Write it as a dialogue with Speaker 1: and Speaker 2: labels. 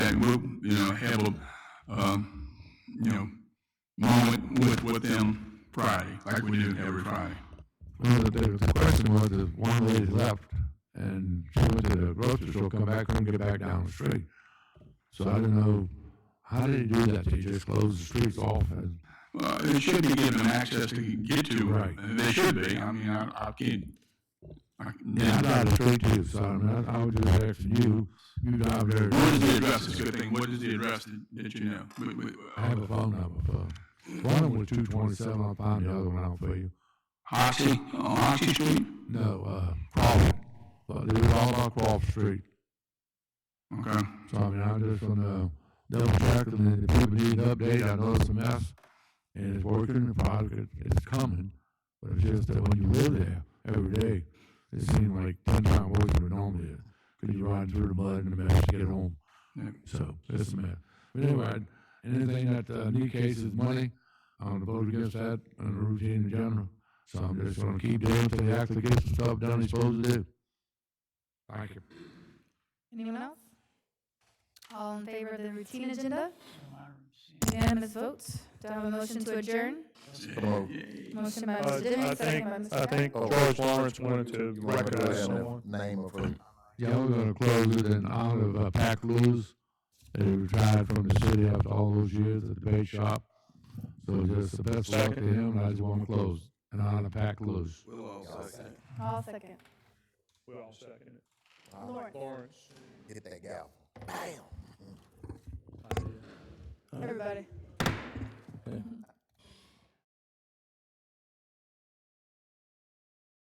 Speaker 1: have a, um, you know, moment with, with them Friday, like we do every Friday.
Speaker 2: Well, the, the question was, if one lady left and she went to the grocery store, come back, couldn't get back down the street. So I don't know, how did you do that? Did you just close the streets off? and-
Speaker 1: Uh, they should be given access to get to,
Speaker 2: Right.
Speaker 1: right? They should be. I mean, I, I can't. I,
Speaker 2: Yeah, I drive the street too, so I mean, I, I would just ask you, you drive there.
Speaker 1: What is the address? It's a good thing. What is the address that, that you know? We- uh, we-
Speaker 2: I have a phone number for, one of them was two twenty-seven, I'll find the other one out for you.
Speaker 1: Oxy, on Oxy Street?
Speaker 2: No, uh, Crawford, but it was all about Crawford Street.
Speaker 1: Okay.
Speaker 2: So I mean, I just wanna double check and then if people need an update, I know it's a mess. And it's working, the product is- is coming, but it's just that when you live there every day, it seems like ten times worse than it normally is. Cause you're riding through the mud and the mess to get home.
Speaker 1: Yeah.
Speaker 2: So it's a mess. But anyway, anything that, uh, need cases money, I'm gonna vote against that and the routine in general. So I'm just gonna keep doing until they actually get some stuff done they're supposed to do. Thank you.
Speaker 3: Anyone else? All in favor of the routine agenda? Unanimous votes. Do I have a motion to adjourn? Motion by
Speaker 4: Uh,
Speaker 3: Mr. Demme,
Speaker 4: I
Speaker 3: second
Speaker 4: think,
Speaker 3: by
Speaker 4: I
Speaker 3: Mr. Rath.
Speaker 5: Oh,
Speaker 4: think George Lawrence wanted to
Speaker 5: You want me to
Speaker 4: recognize
Speaker 5: have
Speaker 4: someone.
Speaker 5: a name of who?
Speaker 2: Yeah, we're gonna close it in honor of uh, Pac Lewis, that he retired from the city after all those years at the bait shop. So just the best of luck to
Speaker 4: Second.
Speaker 2: him, and I just wanna close in honor of Pac Lewis.
Speaker 3: All second.
Speaker 4: We all second it.
Speaker 3: Lawrence.
Speaker 4: Lawrence.
Speaker 5: Get that gal.
Speaker 3: Everybody.